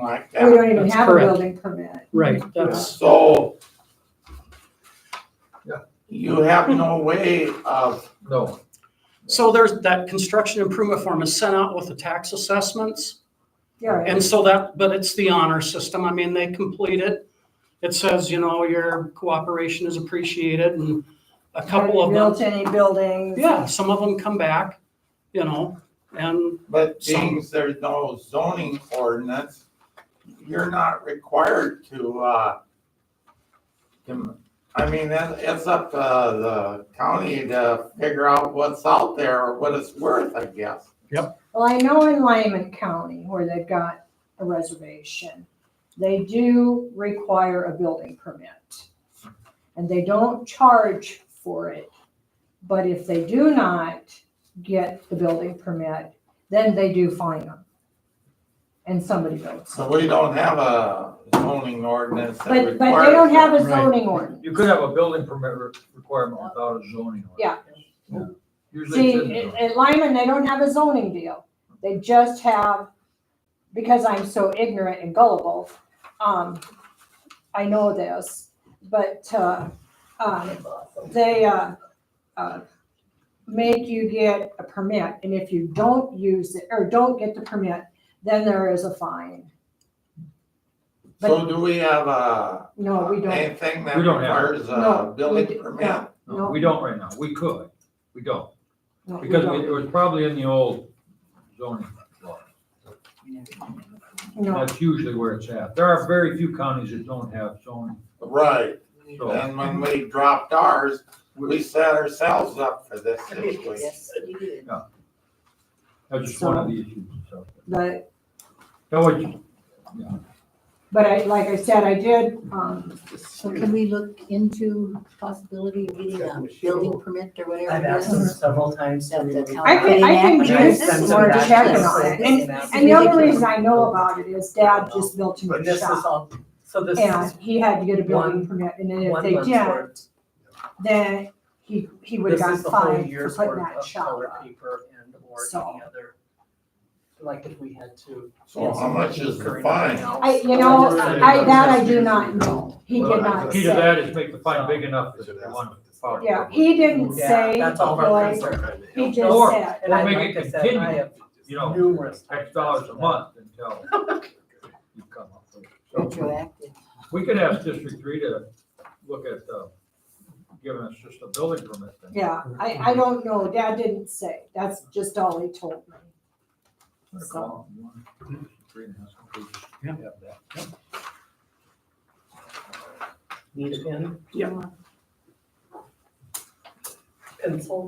like We don't that. even That's have a correct. building permit. Right, that's, So. Yeah. You have no way of, No, so there's, that construction improvement form is sent out with the tax assessments. Yeah, right. And so that, but it's the honor system. I mean, they complete it. It says, you know, your cooperation is appreciated and a couple of them, Built any buildings. yeah, some of them come back, you know, and but Some- being there's no zoning ordinance, you're not required to, uh, to- I mean, that, it's up to the county to figure out what's out there or what it's worth, I guess. Well, I know in Lyman County where they've got a reservation, they do require a building permit. And they don't charge for it. But if they do not get the building permit, then they do fine them. And somebody builds. So we don't have a zoning ordinance that But, requires. but they don't have a Right. zoning ordinance. you could have a building permit re- requirement without a zoning. order. Yeah. Yeah. Usually See, it's in the at zoning. at Lyman, they don't have a zoning deal. They just have, because I'm so ignorant and gullible, um, I know this, but, uh, um, they, uh, uh, make you get a permit, and if you don't use it, or don't get the permit, then there is a fine. So do we have a, No, we don't, anything that We don't have it. requires No, a we building d- permit? no. No, we don't right now, we could, we don't, no, we because it don't, was probably in the old zoning law. no. That's usually where it's at. There are very few counties that don't have zoning, Right, so. and when we dropped ours, we set ourselves up for this situation. Yes, you did. That's just one of the issues, so. But, That was, but I, like I said, I did, um, So can we look into possibility of getting a building permit or whatever? I've it asked Mm-hmm. them is? several times. That the town- I can- I can This just is sort of ridiculous. check on it. This is and the only ridiculous. reason I know about it is Dad just built too But much this is shop. all, so this And is he had to get a building One- permit, and then if one they month's didn't, worth. then he, he would have This gotten is the whole fined for year's putting worth that of shop color up. paper and or So. any other. Like if we had to. So Oh, how much is the Current fine? accounts. I, you know, I, that I do not know, he Well, did the not key to that say. is make the fine big enough that they want to follow. Yeah, he didn't Yeah, say, That's all of our like, concern. he just Or- said, And I, Make like it I said, I continue, have you know, numerous. X times dollars a asked for month until you come up with it. So Retroactive. We could ask District Three to look at, uh, giving us just a building permit then. yeah, I, I don't know, Dad didn't say, that's just all he told me. So, Three and a half pages. Yeah. Have that. that. Need a pen? Yeah. Pencil?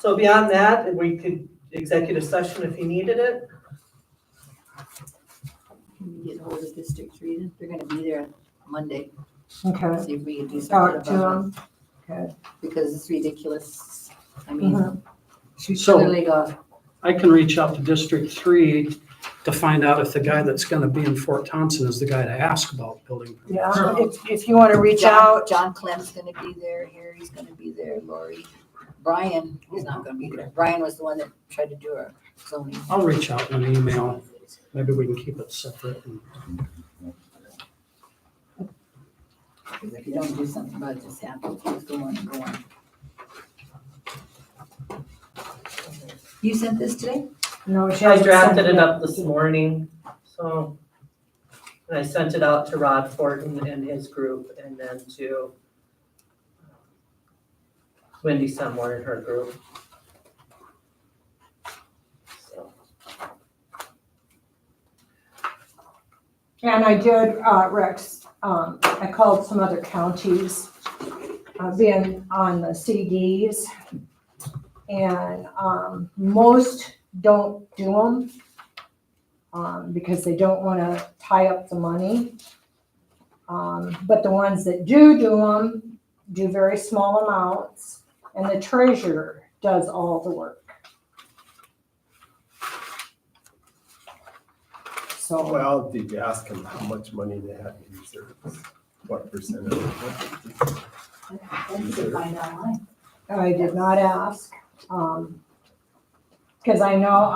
So beyond that, we could, executive session if you needed it. Can we get hold of District Three? then? They're gonna be there Monday, okay, see if we can do something talk about it. to him, okay, Because it's ridiculous. I Uh-huh. mean, she's So- clearly got, I can reach out to District Three to find out if the guy that's gonna be in Fort Thompson is the guy to ask about building. permits. yeah, Sure. if, if you wanna reach John, out, John Clem's gonna be there, Harry's gonna be there, Lori. Brian is not gonna be there. Brian was the one that tried to do our zoning. I'll reach out in an email. Maybe we can keep it separate. and- Because if you don't do something about it, this happens, it's going and going. You sent this today? no, she I hasn't sent drafted it yet. up this morning, so. And I sent it out to Rod Fortin and his group and then to uh, Wendy somewhere in her group. So, And I did, uh, Rex, um, I called some other counties, uh, being on the CDs. And, um, most don't do them, um, because they don't wanna tie up the money. Um, but the ones that do do them, do very small amounts, and the treasurer does all the work. So. Well, did you ask him how much money they had in reserves? What percent of it? Then you can find out why. I did not ask, um, because I know,